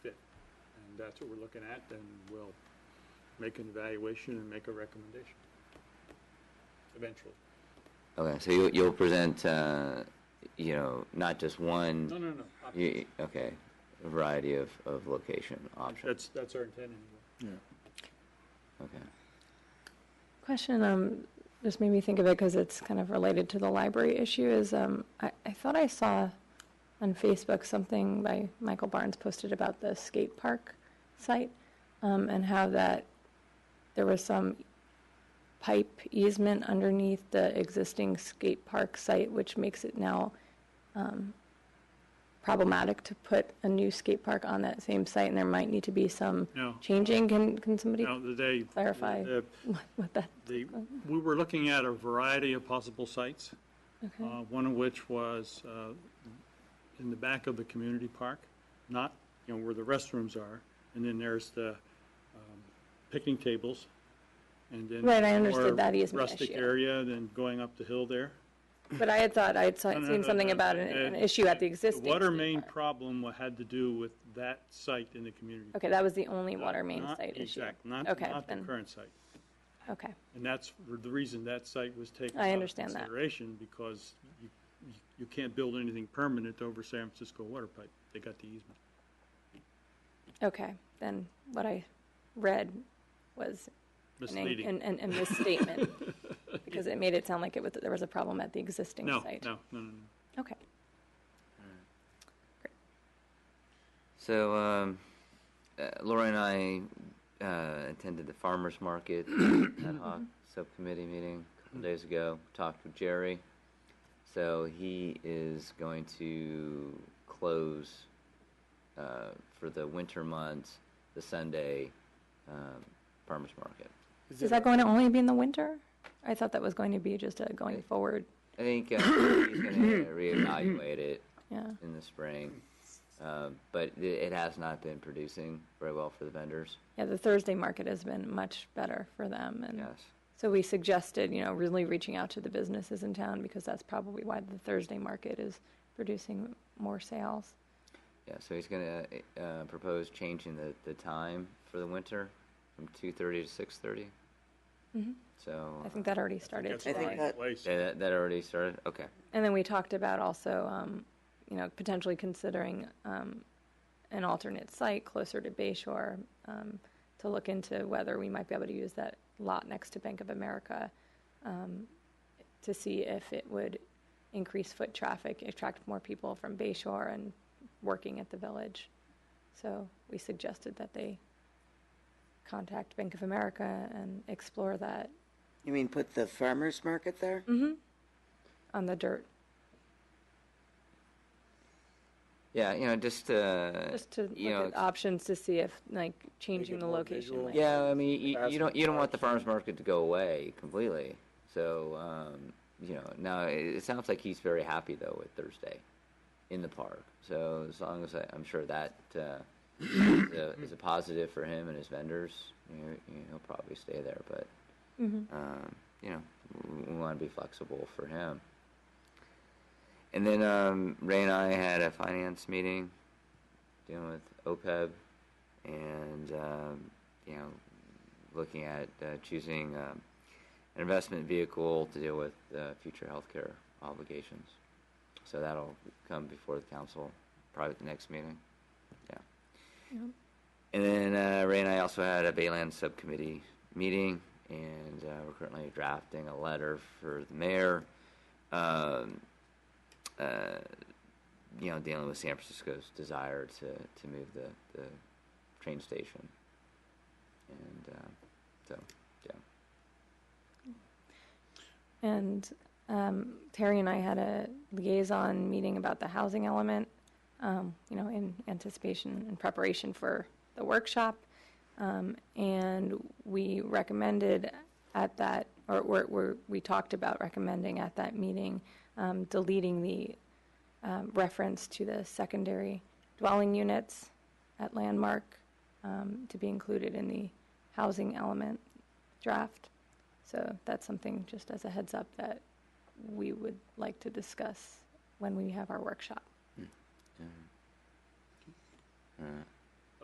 that's what we're looking at, then we'll make an evaluation and make a recommendation. Eventually. Okay, so you, you'll present, uh, you know, not just No, one, no, no. I- you, okay, a variety of, of location options, That's, that's our intent anyway. okay. Question, um, just made me think of it because it's kind of related to the library issue is, um, I, I thought I saw on Facebook something by Michael Barnes posted about the skate park site, um, and how that there was some pipe easement underneath the existing skate park site, which makes it now, um, problematic to put a new skate park on that same site, and there might need to be some No. changing. Can, can somebody Now, the day. Clarify. the- what that, The, we were looking at a variety of possible sites, uh, okay? one of which was uh, in the back of the community park, not, you know, where the restrooms are, and then there's the um, picnic tables, and then. Right, I understood more that easement Rustic issue. area, then going up the hill there. But I had thought, I'd saw- No, no, seen no, something no, about no, an, an uh, issue at the existing. The water skate main park. problem had to do with that site in the community. Okay, that was the only park, water main not- site issue. Exact, not, Okay, not the then- current site. Okay, And that's r- the reason that site was taken. I out of understand that. Consideration because you, you- you can't build anything permanent over San Francisco water pipe. They got the easement. okay, then what I read was an, Misleading. an, an- a misstatement, because it made it sound like it was, there was a problem at the existing No, site. no, no, no, no. Okay, So, um, uh, Laura and I uh, attended the farmers market ad hoc subcommittee meeting a couple days ago. Talked with Jerry. So he is going to close uh, for the winter months the Sunday um, farmers market. is that going to only be in the winter? I thought that was going to be just a going forward, I think uh, he's going to reevaluate it yeah, in the spring, um, but it, it has not been producing very well for the vendors. yeah, the Thursday market has been much better for them, and. Yes. So we suggested, you know, really reaching out to the businesses in town because that's probably why the Thursday market is producing more sales. Yeah, so he's gonna uh, uh, propose changing the, the time for the winter from two thirty to six So Mm-hmm. I think that already started That's already today. in that- place. yeah, that, that already started. Okay, And then we talked about also, um, you know, potentially considering, um, an alternate site closer to Bay Shore, um, to look into whether we might be able to use that lot next to Bank of America, um, to see if it would increase foot traffic, attract more people from Bay Shore and working at the village. So we suggested that they contact Bank of America and explore that You mean put the farmer's market there? on the dirt, yeah, you know, just uh, just to you know, look at options to see if, like, changing it the more location. visual. might- yeah. I mean, you, Ask you don't you don't want the questions. farmers market to go away completely. So um, you know, now it, it sounds like he's very happy though with Thursday in the park. So as long as I, I'm sure that uh, is, a, is a positive for him and his vendors, you know, you- he'll probably stay there, but. Mhm. um, you know, we- we want to be flexible for him. And then um, Ray and I had a finance meeting dealing with E OPEB and, um, you know, looking at uh, choosing um, an investment vehicle to deal with uh, future healthcare obligations. So that'll come before the council, probably at the next meeting. Yeah. Yep. And then uh, Ray and I also had a Bayland subcommittee meeting, and uh, we're currently drafting a letter for the mayor. Um, uh, you know, dealing with San Francisco's desire to, to move the, the train station. And uh, so, yeah. And um, Terry and I had a liaison meeting about the housing element, um, you know, in anticipation and preparation for the workshop. Um, and we recommended at that, or, or, or we talked about recommending at that meeting um, deleting the um, reference to the secondary dwelling units at Landmark um, to be included in the housing element draft. So that's something, just as a heads up, that we would like to discuss when we have our workshop. All right.